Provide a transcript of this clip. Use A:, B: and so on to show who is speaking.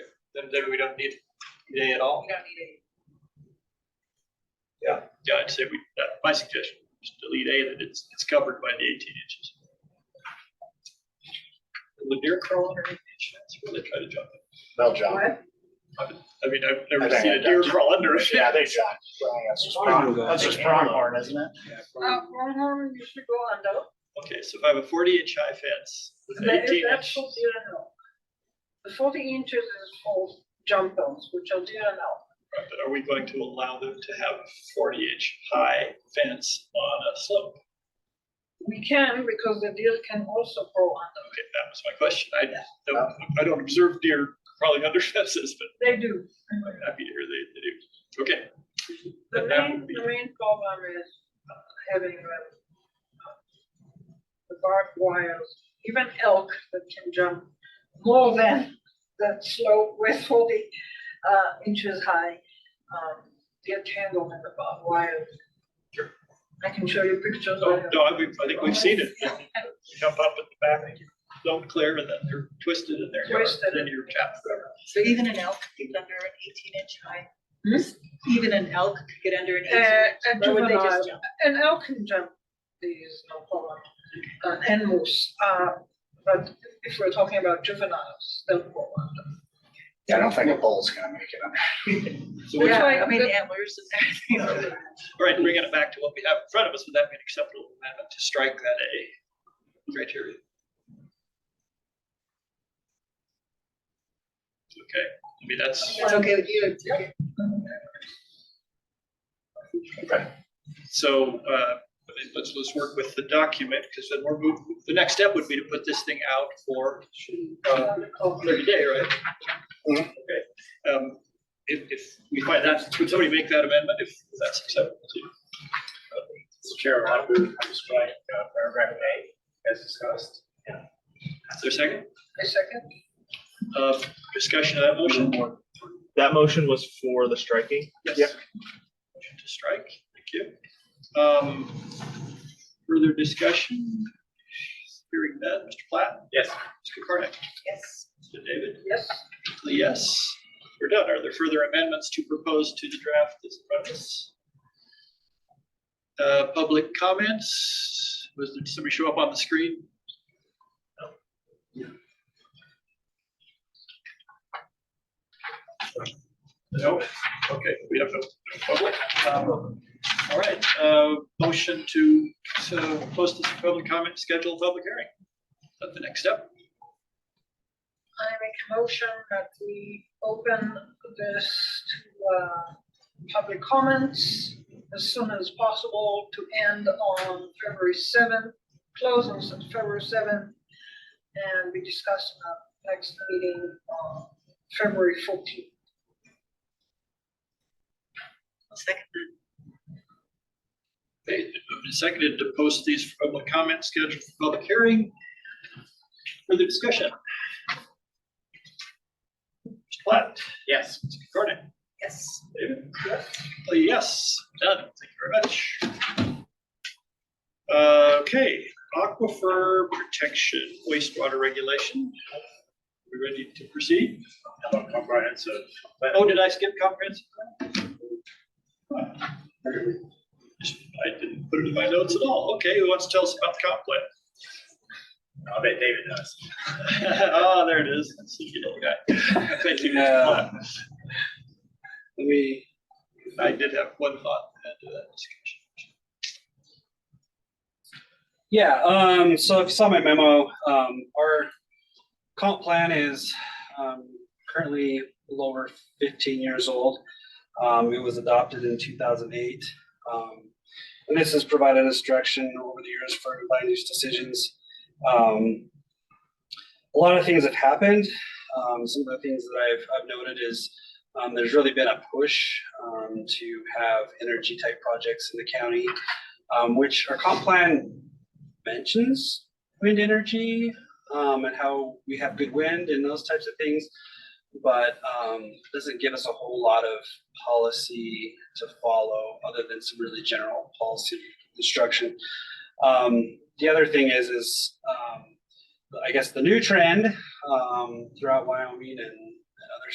A: then maybe we don't need EDA at all.
B: We don't need it.
A: Yeah, I'd say we, that- my suggestion, just delete A, that it's, it's covered by the eighteen inches. Will a deer crawl under eighteen inches? That's where they try to jump.
C: They'll jump.
B: What?
A: I mean, I've
C: I
A: never
C: think
A: seen
C: I
A: a deer
C: got you.
A: crawl under it.
C: Yeah, they jump. Well, That's just prong- that's just pronghorn, isn't it?
B: Uh, Pronghorn, you should go on though.
A: Okay, so if I have a forty inch high fence with
B: That is,
A: eighteen
B: that's
A: inch,
B: for deer and elk. The forty inches is for jump zones, which are deer and elk.
A: but are we going to allow them to have a forty inch high fence on a slope?
B: We can, because the deer can also go under.
A: Okay, that was my question. I don't, I don't observe deer crawling under fences, but
B: They do.
A: I'm happy to hear they, they do. Okay.
B: The
A: But that
B: main,
A: would be-
B: the main problem is uh, having uh, the barbed wires, even elk that can jump more than the slope with forty uh, inches high. um, Get tangled in the barbed wires.
A: Sure. Oh,
B: I can show you pictures.
A: No,
B: later.
A: no, I, I think we've seen it. Jump up at the back, don't clear, and then they're twisted in their yard,
B: Twisted.
A: then you're trapped forever.
D: So even an elk could get under an eighteen inch high? Even an elk could get under an eighteen
B: Uh,
D: inch?
B: a
D: Or would they
B: juvenile.
D: just jump?
B: And elk can jump these, no problem, uh, and moose, uh, but if we're talking about juveniles, they'll go under.
C: Yeah, I don't think a bull's gonna make it.
A: So we're,
B: Yeah.
A: all
D: I mean,
B: the-
D: antlers and everything.
A: right, bringing it back to what we have in front of us, would that be an acceptable amendment to strike that A criteria? Okay, I mean, that's,
D: It's okay with you? it's okay.
A: so, uh, I mean, let's, let's work with the document, because then we're moved, the next step would be to put this thing out for, uh, Thirty day, right?
C: Mhm.
A: Okay, um, if, if we find that, would somebody make that amendment if that's acceptable to you?
E: Mr. Chair, I move to strike uh, paragraph A as discussed.
A: Is there a second,
B: A second,
A: uh, discussion of that motion?
F: That motion was for the striking.
A: Yes.
C: Yep.
A: Motion to strike, thank you. Um, further discussion? Hearing that, Mr. Platt,
E: Yes.
A: Mr. Carnick,
D: Yes.
A: Mr. David,
B: yes,
A: yes, we're done. Are there further amendments to propose to the draft that's in front of us? Uh, public comments, was there, did somebody show up on the screen? No, okay, we have no no public. Um, All right, uh, motion to, to post this public comment, schedule a public hearing. Is that the next step?
B: I make a motion that we open this to, uh, public comments as soon as possible to end on February seventh, close on February seventh, and we discuss in our next meeting on February fourteenth.
D: I'll second that.
A: Okay, it's moved and seconded to post these for public comment scheduled for public hearing. Further discussion? Mr. Platt,
E: Yes.
A: Mr. Cornick,
D: Yes.
A: David? Uh, Yes, done, thank you very much. Uh, Okay, aquifer protection wastewater regulation. We ready to proceed?
E: Hello, comprehensive. plan.
A: Oh, did I skip comprehensive? plan? Huh, I didn't put it in my notes at all. Okay, who wants to tell us about the comp plan?
E: I'll bet David does.
A: Oh, there it is. That's the little guy. Thank you. Mr. Platt.
G: We,
A: I did have one thought to add to that discussion.
G: yeah, um, so if you saw my memo, um, our comp plan is, um, currently a little over fifteen years old. Um, it was adopted in two thousand eight. Um, and this has provided us direction over the years for land use decisions. Um, a lot of things have happened. Um, some of the things that I've, I've noted is, um, there's really been a push, um, to have energy type projects in the county. um, which our comp plan mentions wind energy um, and how we have good wind and those types of things, but um, doesn't give us a whole lot of policy to follow other than some really general policy instruction. Um, the other thing is, is um, I guess the new trend um, throughout Wyoming and